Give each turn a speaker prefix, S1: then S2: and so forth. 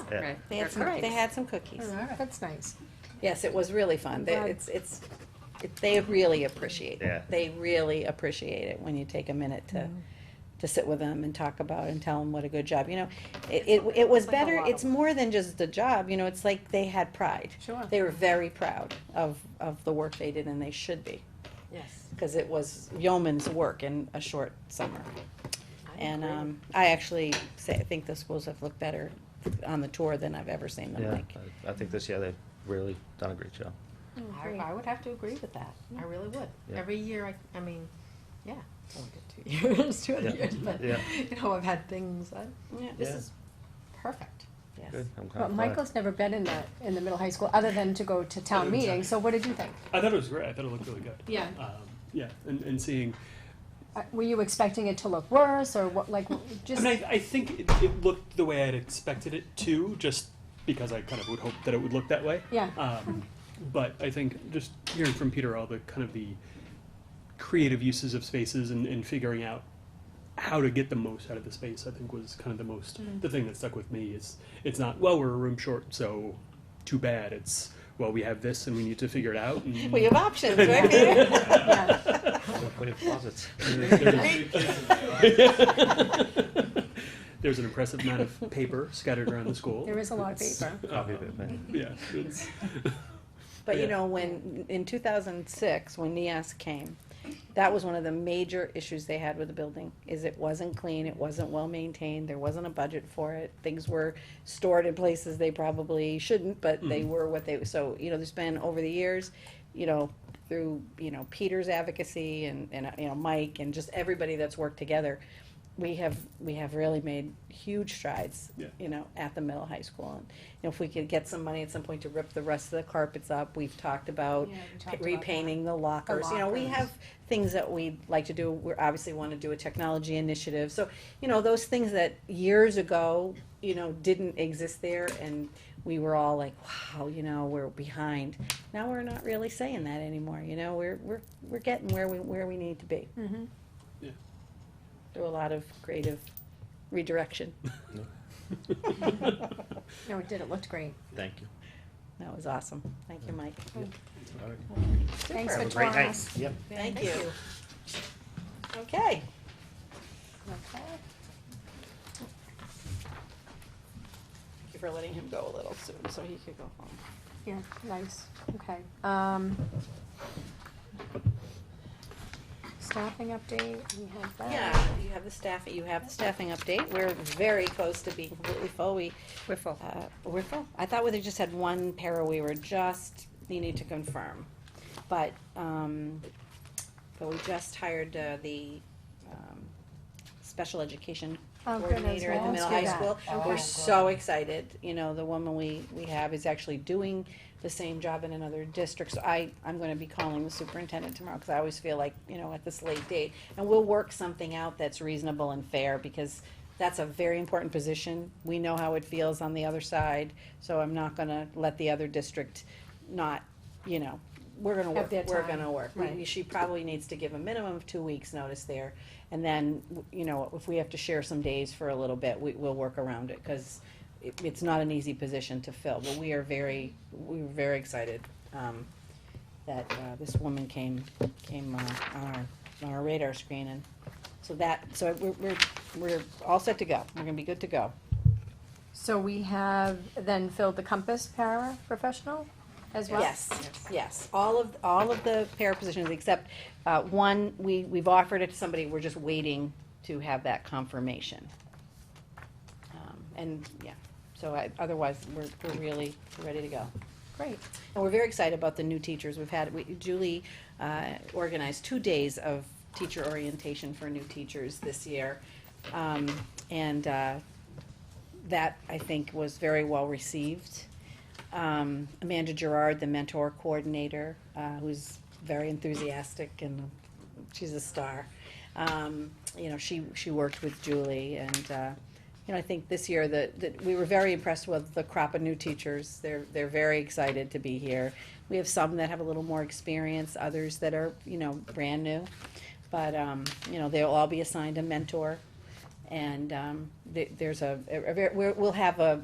S1: Yeah.
S2: Right.
S3: They
S2: They're
S3: had some,
S2: cookies.
S3: they had some cookies.
S4: That's nice.
S3: Yes, it was really fun. They,
S4: Glad.
S3: it's, it's, it- they really appreciate
S1: Yeah.
S3: it. They really appreciate it when you take a minute to,
S4: Mm-hmm.
S3: to sit with them and talk about and tell them what a good job, you know. It, it, it was
S4: Like a
S3: better,
S4: lot of
S3: it's more than just the job, you know, it's like they had pride.
S4: Sure.
S3: They were very proud of, of the work they did and they should be,
S2: Yes.
S3: cause it was yeoman's work in a short summer.
S2: I
S3: And,
S2: agree.
S3: um, I actually say, I think the schools have looked better on the tour than I've ever seen them
S1: Yeah,
S3: like.
S1: I- I think this year they've really done a great job.
S2: I, I would have to agree with that. I really would.
S1: Yeah.
S2: Every year, I, I mean, yeah, it's only been two years, two other
S1: Yeah.
S2: years, but,
S1: Yeah.
S2: you know, I've had things, I, this
S1: Yeah.
S2: is perfect. Yes.
S1: Good, I'm kinda
S4: But
S1: glad.
S4: Michael's never been in the, in the middle high school, other than to go to town meeting, so what did you think?
S5: I thought it was great. I thought it looked really good.
S2: Yeah.
S5: Um, yeah, and, and seeing,
S4: Uh, Were you expecting it to look worse, or what, like,
S5: I
S4: just,
S5: mean, I, I think it, it looked the way I'd expected it to, just because I kind of would hope that it would look that way.
S4: yeah,
S5: Um, but I think just hearing from Peter all the kind of the creative uses of spaces and, and figuring out how to get the most out of the space, I think was kind of the most the thing that stuck with me is it's not well we're a room short, so too bad. It's well we have this and we need to figure it out. And
S3: We have options, right, Peter?
S4: yeah.
S1: We have closets.
S5: There's an impressive amount of paper scattered around the school.
S4: There is a lot of paper.
S1: Copy of it, man.
S5: Yeah, it's-
S3: But you
S5: Yeah.
S3: know, when, in two thousand six, when NIAS came, that was one of the major issues they had with the building, is it wasn't clean, it wasn't well-maintained, there wasn't a budget for it, things were stored in places they probably shouldn't, but they were what they, so, you know, there's been over the years, you know, through, you know, Peter's advocacy and, and, uh, you know, Mike and just everybody that's worked together, we have, we have really made huge strides,
S5: Yeah.
S3: you know, at the middle high school. And you know, if we could get some money at some point to rip the rest of the carpets up, we've talked about
S4: Yeah, we talked
S3: pa-
S4: about that.
S3: repainting the lockers. You know, we
S4: lockers.
S3: have things that we'd like to do. We obviously want to do a technology initiative. So, you know, those things that years ago, you know, didn't exist there and we were all like, wow, you know, we're behind. Now we're not really saying that anymore, you know, we're, we're, we're getting where we, where we need to be.
S2: Mm-hmm.
S4: Mhm.
S5: Yeah.
S3: Through a lot of creative redirection.
S4: No, it did, it looked great.
S1: Thank you.
S3: That was awesome. Thank you, Mike.
S1: All right.
S4: Thanks
S1: Have
S4: for
S1: a great
S4: touring
S1: night.
S4: us.
S1: Yep.
S3: Thank you. Okay.
S4: Okay.
S3: Thank you for letting him go a little soon, so he could go home.
S4: Yeah, nice, okay. Um, Staffing update, we have that.
S3: Yeah, you have the staff, you have the staffing update. We're very close to being completely full. We,
S4: We're full.
S3: uh, we're full. I thought we just had one para we were just needing to confirm. But, um, but we just hired, uh, the, um, special education
S4: Oh, good, I was
S3: coordinator at the
S4: gonna
S3: middle
S4: ask you
S3: high
S4: that.
S3: school.
S4: Okay.
S3: We're so excited, you know, the woman we, we have is actually doing the same job in another district. So I, I'm gonna be calling the superintendent tomorrow, cause I always feel like, you know, at this late date. And we'll work something out that's reasonable and fair, because that's a very important position. We know how it feels on the other side, so I'm not gonna let the other district not, you know, we're gonna
S4: Have
S3: work,
S4: their
S3: we're
S4: time.
S3: gonna work. We-
S4: Right.
S3: we- She probably needs to give a minimum of two weeks' notice there. And then, w- you know, if we have to share some days for a little bit, we, we'll work around it, cause it, it's not an easy position to fill, but we are very, we were very excited, um, that, uh, this woman came, came, uh, on our, on our radar screen and, so that, so we're, we're, we're all set to go. We're gonna be good to go.
S4: So we have then filled the compass para professional as well?
S3: Yes, yes, all of, all of the para positions except, uh, one, we, we've offered it to somebody, we're just waiting to have that confirmation. Um, And, yeah, so I, otherwise, we're, we're really ready to go.
S4: Great,
S3: And we're very excited about the new teachers we've had. We- Julie uh, organized two days of teacher orientation for new teachers this year. Um, And uh, that, I think, was very well received. Um, Amanda Gerard, the mentor coordinator, uh, who's very enthusiastic and she's a star. Um, You know, she, she worked with Julie and, uh, you know, I think this year that, that we were very impressed with the crop of new teachers. They're, they're very excited to be here. We have some that have a little more experience, others that are, you know, brand new. But, um, you know, they'll all be assigned a mentor. And, um, th- there's a, a- a ver- we're- we'll have a,